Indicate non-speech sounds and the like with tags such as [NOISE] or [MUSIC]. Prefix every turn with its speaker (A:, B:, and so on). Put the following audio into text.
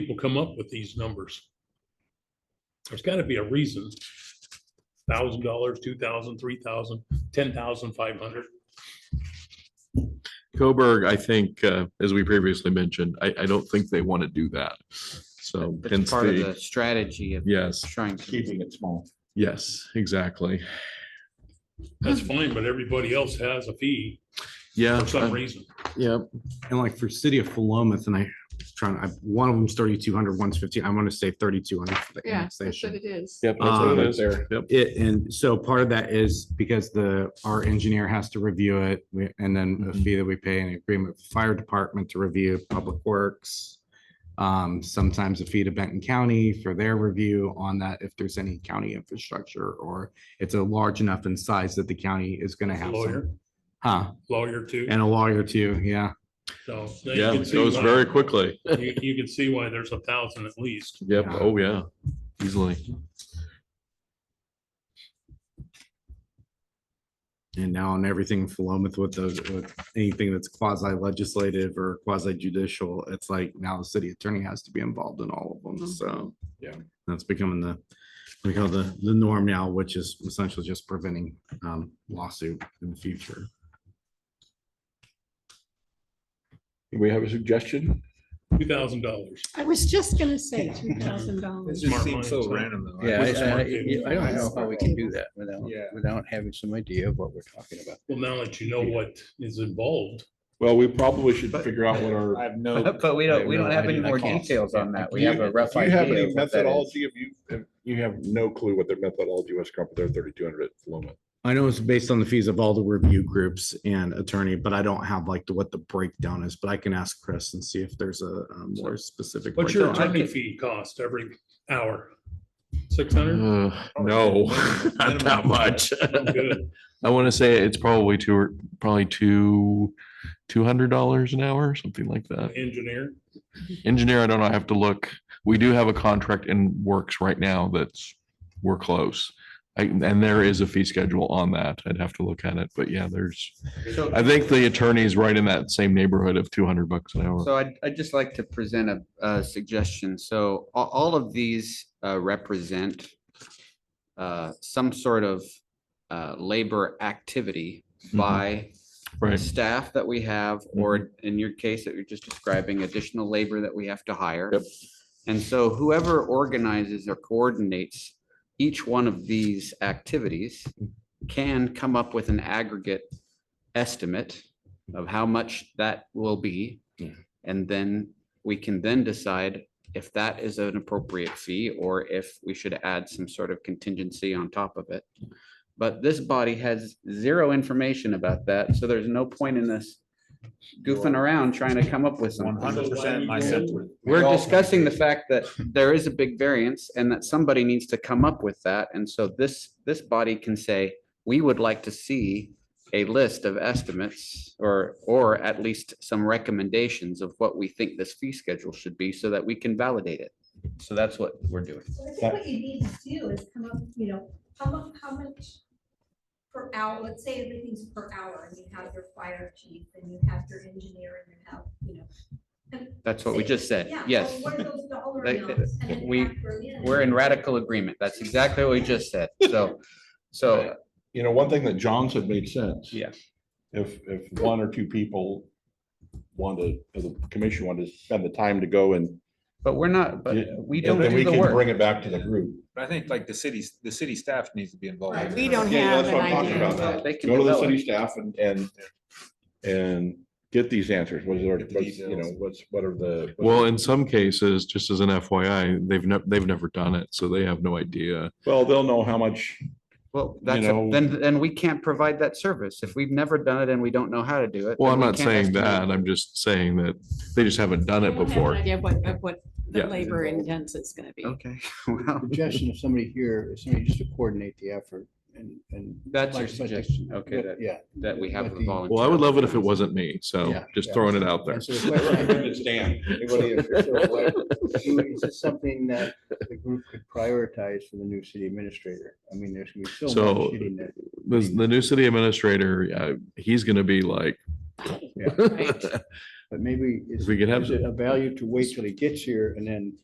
A: come up with these numbers? There's gotta be a reason. Thousand dollars, two thousand, three thousand, ten thousand five hundred.
B: Coburg, I think, uh, as we previously mentioned, I, I don't think they want to do that. So
C: It's
B: hence
C: part of
B: the,
C: the strategy of
B: yes,
C: trying to.
D: keeping it small.
B: yes, exactly.
A: That's
B: Hmm.
A: fine, but everybody else has a fee
B: Yeah,
A: for some
B: uh,
A: reason.
B: yeah,
E: And like for city of Philomath, and I trying, I, one of them's thirty-two hundred, one's fifteen, I'm gonna say thirty-two hundred for the
F: Yeah, that's what
E: annexation.
F: it is.
B: yep. that's what it
E: Um,
B: is. Yep.
E: It, and so part of that is because the, our engineer has to review it, we- and then a fee that we pay an agreement with fire department to review public works. Um, sometimes a fee to Benton County for their review on that, if there's any county infrastructure, or it's a large enough in size that the county is gonna have some.
A: Lawyer,
E: Huh,
A: lawyer too.
E: and a lawyer too, yeah.
A: So. you
B: Yeah,
A: can
B: it
A: see
B: goes
A: why-
B: very quickly.
A: You, you can see why there's a thousand at least.
B: Yep,
E: Yeah.
B: oh, yeah, easily.
E: And now on everything in Philomath with those, with anything that's quasi legislative or quasi judicial, it's like now the city attorney has to be involved in all of them, so.
D: Yeah.
E: That's becoming the, we call the, the norm now, which is essentially just preventing um lawsuit in the future.
D: We have a suggestion?
A: Two thousand dollars.
F: I was just gonna say two thousand dollars.
A: just seems so random,
D: though.
C: Yeah,
A: With
C: I, I,
A: smart people.
C: you- I don't know how we can do that without,
D: Yeah.
C: without having some idea of what we're talking about.
A: Well, now that you know what is involved,
D: Well, we probably should figure out what our. I have [LAUGHS] no.
C: [LAUGHS] But we
D: don't- we don't have any more details
C: on that.
D: Do you have any methodology of you, if you have no clue what their methodology was, come up with their thirty-two hundred at Flowman.
E: I know it's based on the fees of all the review groups and attorney, but I don't have like the, what the breakdown is, but I can ask Chris and see if there's a a more specific.
A: what's your
E: breakdown.
A: attorney fee cost every hour? Six
B: [LAUGHS]
A: hundred?
B: Uh,
A: Oh, [LAUGHS]
B: No, not that much. I want to say it's probably two, or probably two, two hundred dollars an hour, something like that.
A: Engineer,
B: Engineer, I don't know, I have to look. We do have a contract in works right now that's, we're close. I- And there is a fee schedule on that. I'd have to look at it, but yeah, there's, I think the attorney's right in that same neighborhood of two hundred bucks an hour.
C: So I'd, I'd just like to present a, a suggestion. So a- all of these uh, represent uh, some sort of uh, labor activity
B: Mhm.
C: by the
B: Right, Mm-hmm.
C: staff that we have, or in your case that you're just describing, additional labor that we have to hire.
B: Yep.
C: And so whoever organizes or coordinates each one of these activities can come up with an aggregate estimate of how much that will be.
E: Yeah.
C: And then we can then decide if that is an appropriate fee or if we should add some sort of contingency on top of it. But this body has zero information about that, so there's no point in us goofing around trying to come up with something.
A: percent my sentiment.
C: We're discussing the fact
D: [LAUGHS]
C: that there is a big variance and that somebody needs to come up with that. And so this, this body can say, we would like to see a list of estimates or, or at least some recommendations of what we think this fee schedule should be so that we can validate it. So that's what we're doing.
G: Well, I think what you need to do is come up, you know, how much, how much per hour, let's say everything's per hour, and you have your fire chief, and you have your engineer, and you have, you know.
C: That's what we just said.
G: yeah, so
C: Yes.
G: What are those dollar
C: They-
G: amounts? and then
C: we-
G: factor in.
C: We're in radical agreement. That's exactly what we just said. So, so
D: You know, one thing that John said made sense.
C: Yeah.
D: If, if one or two people wanted, if the commission wanted to spend the time to go and.
C: But we're not, but
D: Yeah.
C: we don't
D: then
C: do
D: we
C: the
D: can Bring
C: work.
D: it back to the group.
H: But I think like the city's, the city staff needs to be involved.
F: We don't
D: Yeah,
F: have
D: that's
F: an
D: what I'm talking
F: idea.
D: about.
C: They can
D: Go to the
C: develop.
D: city staff and, and, and get these answers. What is our, what's, you know, what's, what are the?
B: well, in some cases, just as an FYI, they've never, they've never done it, so they have no idea.
D: Well, they'll know how much,
C: Well, that's, a-
D: know-
C: then, then we can't provide that service. If we've never done it and we don't know how to do it.
B: Well,
C: then
B: I'm
C: we
B: not
C: can't
B: saying
C: estimate.
B: that, I'm just saying that they just haven't done it before.
F: Idea of what, of what the
B: Yeah.
F: labor intense is gonna be.
C: Okay, [LAUGHS] well,
I: suggestion of somebody here, is somebody just to coordinate the effort and, and.
C: that's your
I: like- like the-
C: suggestion, okay,
I: but,
C: that,
I: Yeah.
C: that we have
I: but
C: a
I: the-
C: volunteer.
B: Well, I would love it if it wasn't me, so
I: Yeah,
B: just
I: yeah.
B: throwing it out there.
I: And so the question I
B: [LAUGHS]
I: have is- everybody is sort of like,
C: [LAUGHS]
I: do- Is this something that the group could prioritize for the new city administrator? I mean, there's gonna be so
B: So-
I: much shooting that.
B: The, the new city administrator, uh, he's gonna be like,
I: But maybe. is-
B: we could have-
I: is it A value to wait till he gets here and then